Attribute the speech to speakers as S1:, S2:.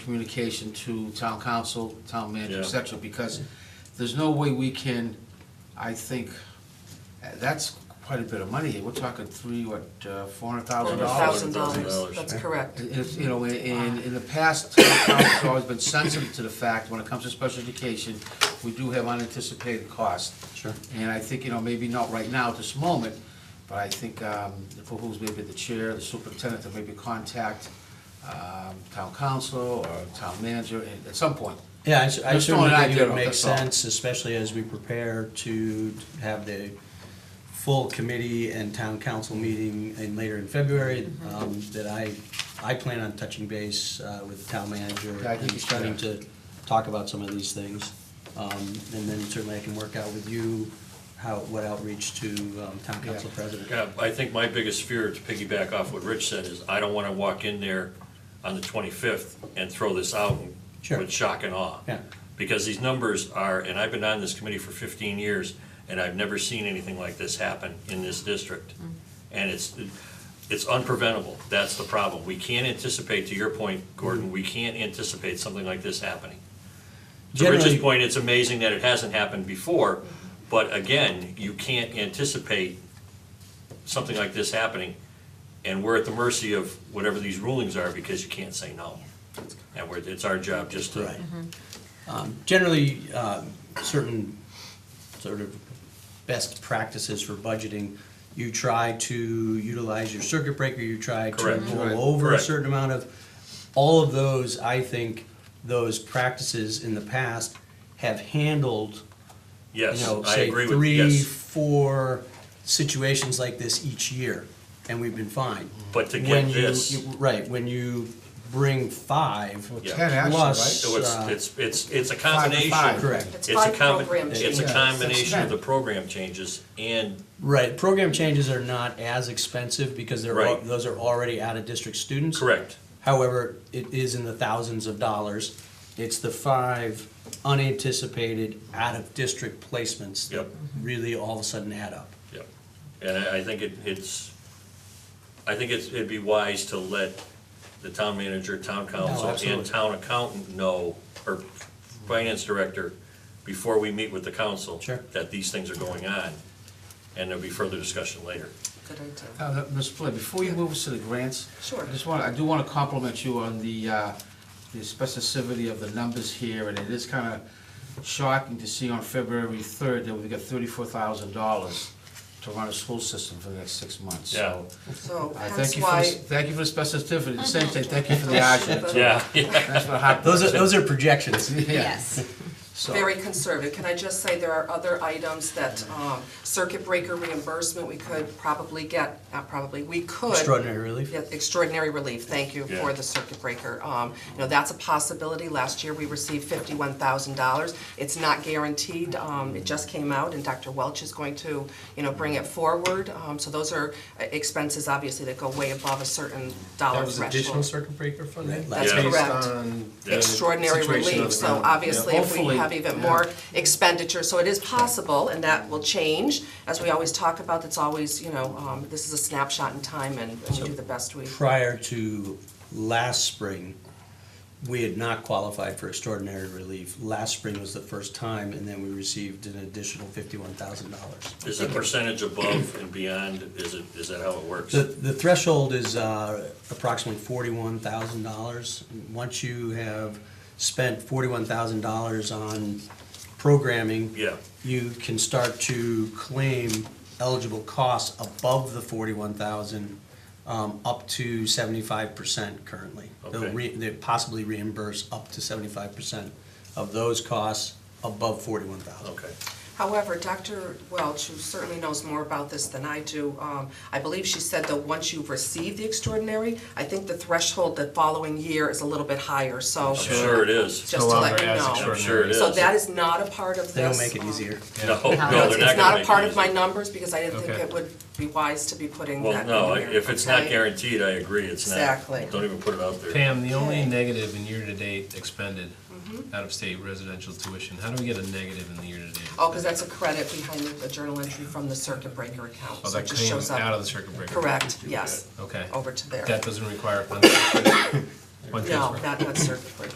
S1: communication to town council, town manager, et
S2: Yeah.
S1: cetera, because there's no way we can, I think, uh, that's quite a bit of money. We're talking three, what, uh, four hundred thousand dollars?
S2: $400,000.
S3: Thousand dollars, that's correct.
S1: It's, you know, and in the past, town council's always been sensitive to the fact, when it comes to special education, we do have unanticipated costs.
S4: Sure.
S1: And I think, you know, maybe not right now at this moment, but I think um, it behooves maybe the chair, the superintendent to maybe contact um, town council or town manager at- at some point.
S4: Yeah, I s- I
S1: Just
S4: certainly
S1: throwing an
S4: think it
S1: idea
S4: would
S1: out,
S4: make
S1: that's all.
S4: sense, especially as we prepare to have the full committee and town council meeting in later in February, um, that I, I plan on touching base uh, with the town manager
S1: Yeah, I think
S4: and
S1: you should.
S4: starting to talk about some of these things. Um, And then certainly I can work out with you how, what outreach to um, town council
S1: Yeah.
S4: president.
S2: Yeah, I think my biggest fear, to piggyback off what Rich said, is I don't want to walk in there on the 25th and throw this out and-
S4: Sure.
S2: with shock and awe.
S4: Yeah.
S2: Because these numbers are, and I've been on this committee for 15 years, and I've never seen anything like this happen in this district. And it's, it's unpreventable. That's the problem. We can't anticipate, to your point, Gordon, we can't anticipate something like this happening. To Rich's
S4: Generally-
S2: point, it's amazing that it hasn't happened before, but again, you can't anticipate something like this happening, and we're at the mercy of whatever these rulings are because you can't say no. And we're, it's our job just to,
S4: Right.
S3: Mm-hmm.
S4: Um, Generally, um, certain sort of best practices for budgeting, you try to utilize your circuit breaker, you try to
S2: Correct. Right.
S4: roll over a
S2: Correct.
S4: certain amount of, all of those, I think, those practices in the past have handled
S2: yes,
S4: you know,
S2: I
S4: say
S2: agree with,
S4: three,
S2: yes.
S4: four situations like this each year, and we've been fine.
S2: But to get
S4: when you,
S2: this,
S4: you- right when you bring five
S2: Yeah.
S1: Ten actually,
S4: Plus-
S1: right?
S2: so it's,
S4: uh,
S2: it's, it's, it's a
S1: five to
S2: combination.
S1: five.
S4: correct.
S3: It's
S2: It's a
S3: five
S2: combi-
S3: program
S2: It's
S3: changes.
S2: a combination
S1: That's
S2: of the
S1: right.
S2: program changes and,
S4: Right, program changes are not as expensive because they're, al-
S2: Right.
S4: those are already out-of-district students.
S2: correct,
S4: However, it is in the thousands of dollars. It's the five unanticipated out-of-district placements that
S2: Yep.
S4: really all of a sudden add up.
S2: Yep, and I, I think it, it's, I think it's, it'd be wise to let the town manager, town council, and
S4: absolutely.
S2: town accountant know, or finance director, before we meet with the council.
S4: Sure.
S2: That these things are going on, and there'll be further discussion later.
S3: Good idea.
S1: Uh, Ms. Flynn, before you move us to the grants.
S3: Sure.
S1: I just want, I do want to compliment you on the, uh, the specificity of the numbers here, and it is kind of shocking to see on February third that we've got thirty-four thousand dollars to run a school system for the next six months, so.
S3: So
S1: I
S3: hence
S1: thank you for, the-
S3: why,
S1: thank you for the specificity, the same thing, thank you for the action. too.
S2: Yeah, yeah,
S1: That's what happened.
S4: Those are, those are projections.
S1: Yeah,
S5: Yes.
S1: so.
S3: very conservative, can I just say there are other items that, um, circuit breaker reimbursement, we could probably get, not probably, we could.
S4: Extraordinary relief.
S3: Yeah, extraordinary relief, thank you for
S2: Yeah.
S3: the circuit breaker. Um, You know, that's a possibility, last year we received fifty-one thousand dollars. It's not guaranteed, Um, it just came out, and Dr. Welch is going to, you know, bring it forward. Um, So those are uh, expenses, obviously, that go way above a certain dollar
S6: That was additional
S3: threshold.
S6: circuit breaker funding?
S4: That's
S2: Yeah.
S6: Based
S3: correct.
S6: on the
S3: Extraordinary
S6: situation on the
S3: relief, so
S6: ground.
S3: obviously,
S1: Yeah.
S3: if we
S1: Hopefully,
S3: have even
S1: yeah.
S3: more expenditure, so it is possible, and that will change. As we always talk about, it's always, you know, um, this is a snapshot in time, and and we do the best we.
S4: Prior to last spring, we had not qualified for extraordinary relief. Last spring was the first time, and then we received an additional fifty-one thousand dollars.
S2: is the percentage above and beyond, is it, is that how it works?
S4: The, the threshold is uh, approximately forty-one thousand dollars. Once you have spent forty-one thousand dollars on programming.
S2: Yeah.
S4: You can start to claim eligible costs above the forty-one thousand, um, up to seventy-five percent currently. They'll
S2: Okay.
S4: re- They possibly reimburse up to seventy-five percent of those costs above forty-one thousand.
S2: Okay,
S3: However, Dr. Welch, who certainly knows more about this than I do, um, I believe she said that once you receive the extraordinary, I think the threshold the following year is a little bit higher, so.
S2: I'm sure it is,
S3: Just to
S6: No
S3: let
S6: longer
S3: you
S6: as
S3: know.
S2: I'm
S6: extraordinary.
S2: sure it is.
S3: Oh. So that is not a part of this.
S4: They don't make it
S3: um,
S4: easier.
S2: No, no, they're not
S3: No,
S2: gonna
S3: it's
S2: make it
S3: not a part of
S2: easy.
S3: my numbers, because I didn't think
S6: Okay.
S3: it would be wise to be putting that
S2: Well,
S3: in
S2: no,
S3: here,
S2: if it's not
S3: okay?
S2: guaranteed, I agree, it's not.
S3: Exactly.
S2: Don't even put it out there.
S6: Pam, the only
S3: Okay. Mm-hmm.
S6: negative in year-to-date expended, out-of-state residential tuition, how do we get a negative in the year-to-date?
S3: Oh, because that's a credit behind the journal entry from the circuit breaker account,
S6: Oh,
S3: so
S6: that
S3: it just
S6: came
S3: shows up.
S6: out of the circuit breaker.
S3: Correct, yes,
S6: Okay.
S3: over to there.
S6: That doesn't require a fund fund
S3: No,
S6: transfer.
S3: not, not circuit breaker.